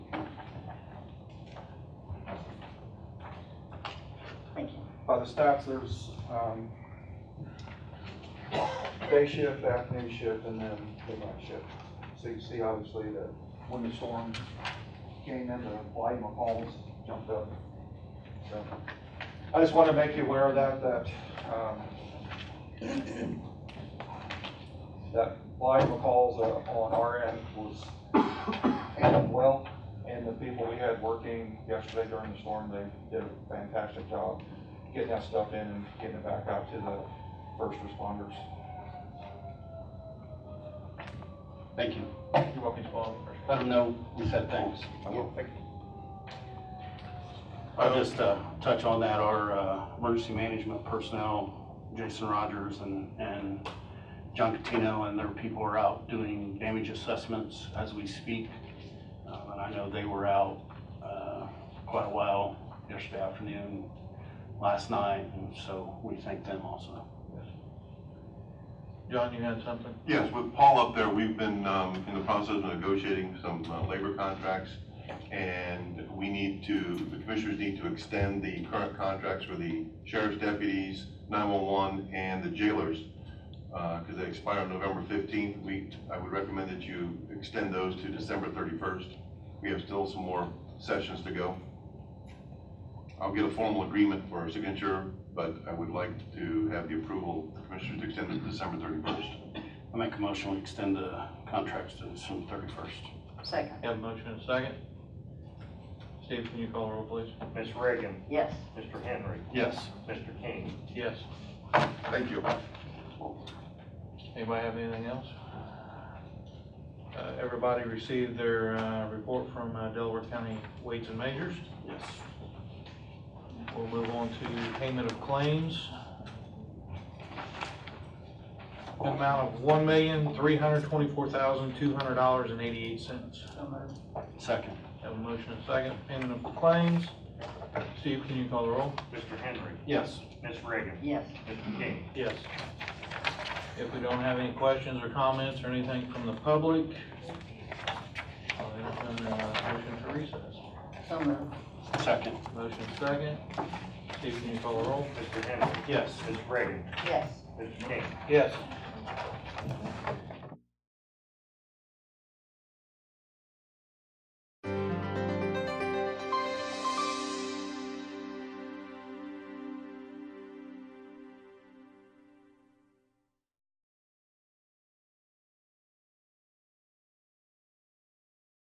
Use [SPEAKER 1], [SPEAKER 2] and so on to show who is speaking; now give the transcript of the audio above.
[SPEAKER 1] the stops, there's, um, day shift, afternoon shift, and then midnight shift. So you see obviously that when the storm came in, the volume of calls jumped up. So I just wanted to make you aware of that, that, um, that volume of calls uh, on our end was handled well. And the people we had working yesterday during the storm, they did a fantastic job getting that stuff in and getting it back out to the first responders.
[SPEAKER 2] Thank you.
[SPEAKER 1] You're welcome, Bob.
[SPEAKER 2] Let them know we said thanks. I'll just uh, touch on that, our uh, emergency management personnel, Jason Rogers and, and John Catino and their people are out doing damage assessments as we speak. Um, And I know they were out uh, quite a while yesterday afternoon, last night, and so we thank them also.
[SPEAKER 3] John, you had something?
[SPEAKER 4] Yes, with Paul up there, we've been um, in the process of negotiating some uh, labor contracts, and we need to, the commissioners need to extend the current contracts for the sheriff's deputies, 911, and the jailers, because they expire on November 15th. We, I would recommend that you extend those to December 31st. We have still some more sessions to go. I'll get a formal agreement for our signature, but I would like to have the approval, of the commissioners to extend it to December 31st.
[SPEAKER 2] I make a motion, we extend the contracts to December thirty-first.
[SPEAKER 5] Second,
[SPEAKER 3] Have a motion and a second? Steve, can you call the roll, please?
[SPEAKER 6] Ms. Reagan,
[SPEAKER 5] yes.
[SPEAKER 6] Mr. Henry,
[SPEAKER 2] Yes.
[SPEAKER 6] Mr. King.
[SPEAKER 3] Yes.
[SPEAKER 4] Thank you.
[SPEAKER 3] Anybody have anything else? Uh, everybody received their, uh, report from uh, Delaware County Weights and Measures.
[SPEAKER 2] Yes.
[SPEAKER 3] We'll move on to payment of claims. An amount of one million, three hundred twenty-four thousand, two hundred dollars and eighty-eight cents.
[SPEAKER 2] Second.
[SPEAKER 3] Have a motion and a second, payment of claims. Steve, can you call the roll?
[SPEAKER 6] Mr. Henry,
[SPEAKER 2] Yes.
[SPEAKER 6] Ms. Reagan,
[SPEAKER 5] Yes.
[SPEAKER 6] Mr. King.
[SPEAKER 3] Yes. If we don't have any questions or comments or anything from the public, I'll entertain a motion to recess.
[SPEAKER 5] So moved.
[SPEAKER 2] Second.
[SPEAKER 3] Motion second. Steve, can you call the roll?
[SPEAKER 6] Mr. Henry,
[SPEAKER 2] Yes.
[SPEAKER 6] Ms. Reagan,
[SPEAKER 5] Yes.
[SPEAKER 6] Mr. King.
[SPEAKER 3] Yes.